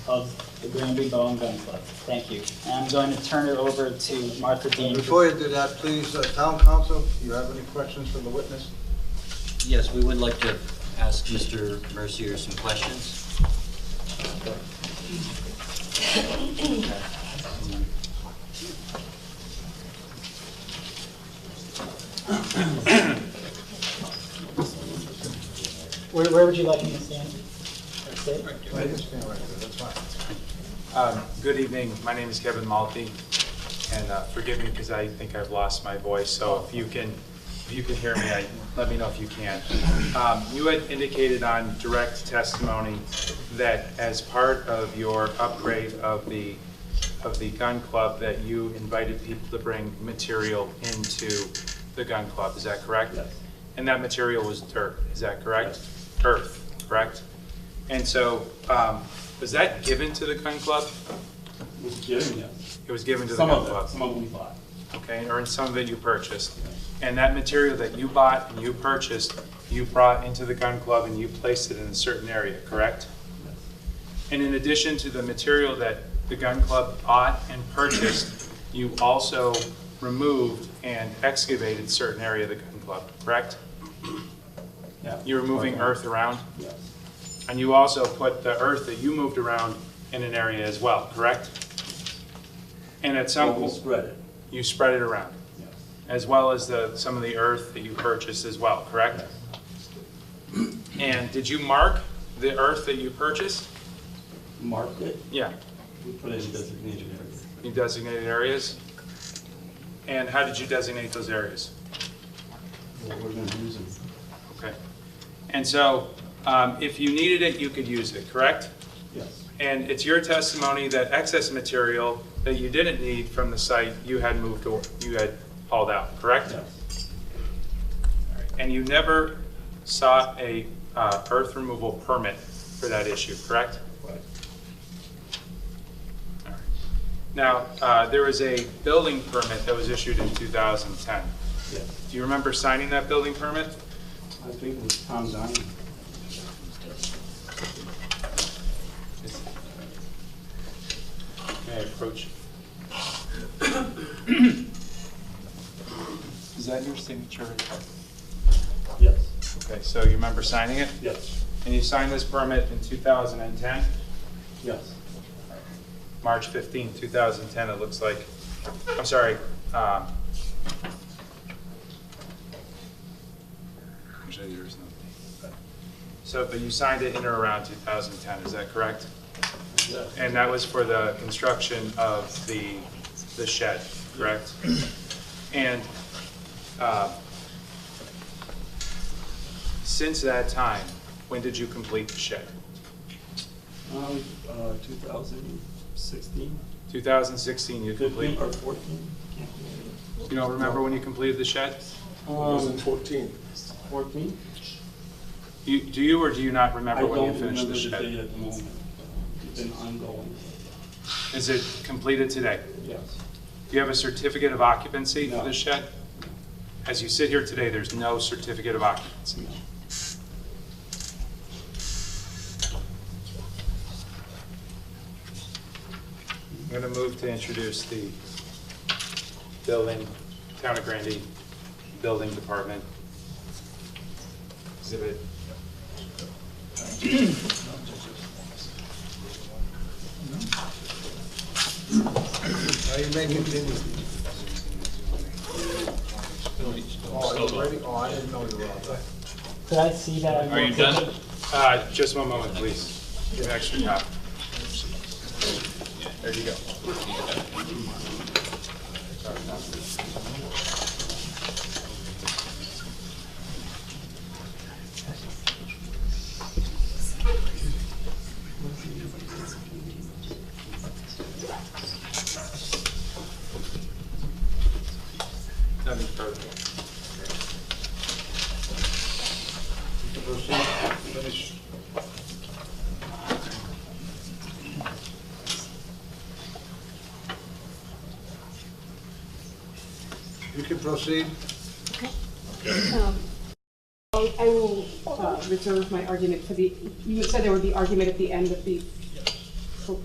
of the Granby Bow and Gun Club. Thank you. And I'm going to turn it over to Martha Dean. Before you do that, please, uh, town council, do you have any questions for the witness? Yes, we would like to ask Mr. Mercier some questions. Where, where would you like me to stand? That's it? Right, just stand right there, that's fine. Um, Good evening, my name is Kevin Malte, and uh, forgive me because I think I've lost my voice, so if you can, if you can hear me, I- let me know if you can. Um, You had indicated on direct testimony that as part of your upgrade of the, of the gun club, that you invited people to bring material into the gun club, is that correct? Yes. And that material was dirt, is that correct? Earth, correct? And so, um, was that given to the gun club? was given, yes. It was given to the Some gun of it, club? some of it we bought. Okay, or in some of it you purchased? And that material that you bought and you purchased, you brought into the gun club and you placed it in a certain area, correct? And in addition to the material that the gun club bought and purchased, you also removed and excavated certain area of the gun club, correct? Yeah. You're moving earth around? Yes, And you also put the earth that you moved around in an area as well, correct? And at some Well, we point, spread it, you spread it around, yes. as well as the, some of the earth that you purchased as well, correct? And did you mark the earth that you purchased? Marked it, Yeah, we put in designated areas. you designated areas? And how did you designate those areas? What we're gonna use it. Okay. And so, um, if you needed it, you could use it, correct? Yes, And it's your testimony that excess material that you didn't need from the site, you had moved or, you had hauled out, correct? yes, And you never sought a uh, earth removal permit for that issue, correct? right. All right. Now, uh, there was a building permit that was issued in 2010. Yes. Do you remember signing that building permit? I think it was Tom Diamond. May I approach? Is that your signature? Yes, Okay, so you remember signing it? yes, And you signed this permit in 2010, yes. March 15, 2010, it looks like. I'm sorry. um, Actually, there is no date. but- So, but you signed it in or around 2010, is that correct? Yes. And that was for the construction of the, the shed, correct? And uh, since that time, when did you complete the shed? Um, uh, two thousand sixteen, 2016, you fifteen completed? or fourteen, can't remember. You don't remember when you completed the shed? Um, fourteen. Fourteen? You, do you or do you not remember when you finished the I don't remember the date shed? at the moment. It's been ongoing, Is it completed today? yes. Do you have a certificate of occupancy for No. the shed? As you sit here today, there's no certificate of occupancy. I'm going to move to introduce the building, Town of Grandy Building Department. Exhibit Now you may continue. Oh, are you ready? Oh, I didn't know you were on that. Could I see that? Are you done? Uh, Just one moment, please. Give me an extra copy. There you go. Nothing further. Proceed, finish. You can proceed. Um, I I will uh, reserve my argument for the, you said there would be argument at the end of the